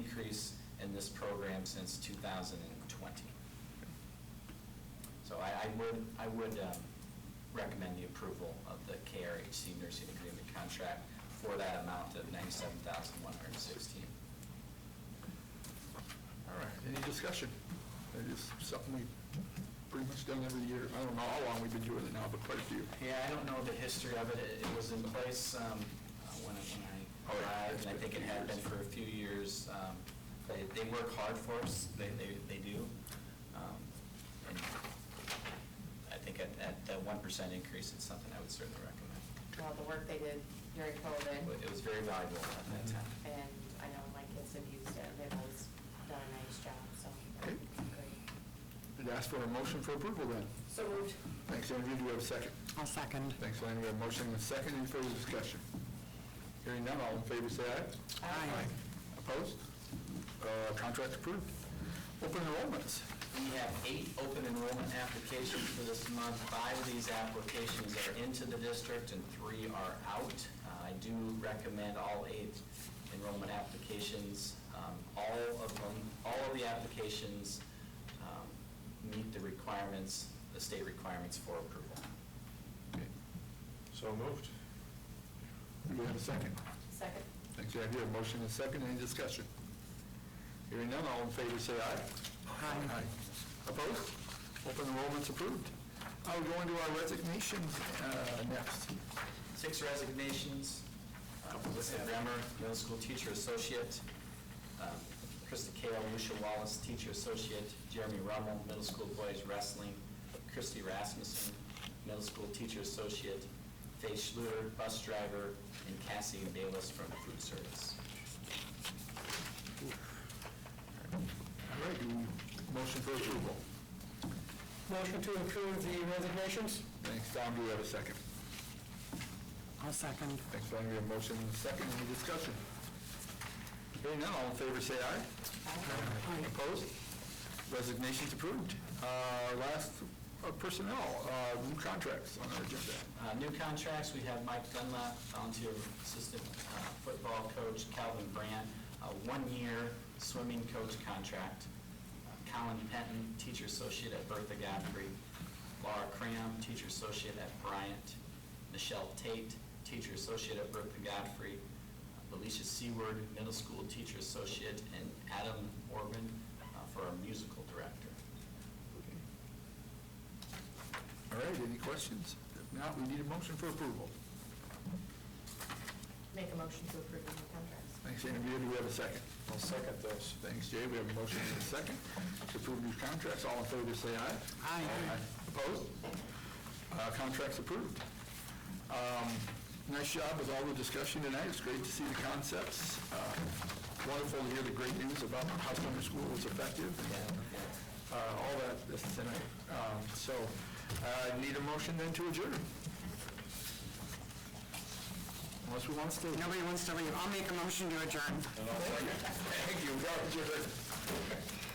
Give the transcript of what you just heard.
increase in this program since 2020. So I I would, I would um, recommend the approval of the KRHC nursing agreement contract for that amount of $97,116. All right, any discussion? That is something we've pretty much done every year. I don't know how long we've been doing it now, but quite a few. Yeah, I don't know the history of it. It it was in place um, uh, when I- when I Oh, yeah. arrived, It's and I been think a it few had been years. for a few years. Um, They, they work hard for us, they, they, they do. Um, And I think at, at that one percent increase, it's something I would certainly recommend. well, the work they did during But It COVID, was very valuable at that time. and I know my kids have used it, they've always done a nice job, so. Okay. great. I'd ask for a motion for approval then. So moved. Thanks, Andrew, do we have a second? I'll second. Thanks, Lynn, we have a motion and a second, any further discussion? Hearing none, all in favor, say aye. Aye. Opposed? Uh, Contract approved. Open enrollments. We have eight open enrollment applications for this month. Five of these applications are into the district and three are out. Uh, I do recommend all eight enrollment applications. Um, All of them, all of the applications um, meet the requirements, the state requirements for approval. Okay. So moved. Do we have a second? Second. Thanks, Andrew, we have a motion and a second, any discussion? Hearing none, all in favor, say aye. Aye. Opposed? Open enrollment's approved. I'll go into our resignations uh, next. Six resignations. Uh, Melissa Bremer, middle school teacher associate. Um, Krista Kale, Lucia Wallace, teacher associate. Jeremy Rummel, middle school boys wrestling. Christy Rasmussen, middle school teacher associate. Faye Schluter, bus driver, and Cassie Bayless from food service. All right, do we- motion for approval. Motion to approve the resignations? Thanks, Tom, do we have a second? I'll second. Thanks, Brian, we have a motion and a second, any discussion? Hearing none, all in favor, say aye. Aye. Opposed? Resignations approved. Uh, Last, uh, personnel, uh, new contracts on our agenda. Uh, New contracts, we have Mike Dunlap, volunteer assistant uh, football coach, Calvin Brandt, a one-year swimming coach contract, Uh, Colin Penton, teacher associate at Bertha Godfrey, Laura Cram, teacher associate at Bryant, Michelle Tate, teacher associate at Bertha Godfrey, Alicia Seward, middle school teacher associate, and Adam Orban uh, for our musical director. All right, any questions? If not, we need a motion for approval. Make a motion to approve the new contracts. Thanks, Andrea, do we have a second? I'll second those. Thanks, Jay. We have a motion and a second to approve these contracts. All in favor, say aye. Aye. Opposed? Uh, Contracts approved. Um, Nice job with all the discussion tonight. It's great to see the concepts. Uh, Wonderful to hear the great news about how summer school was effective and uh, all that this tonight. Um, So uh, need a motion then to adjourn? Unless we want to stay. Nobody wants to leave. I'll make a motion to adjourn. Thank you. We are adjourned.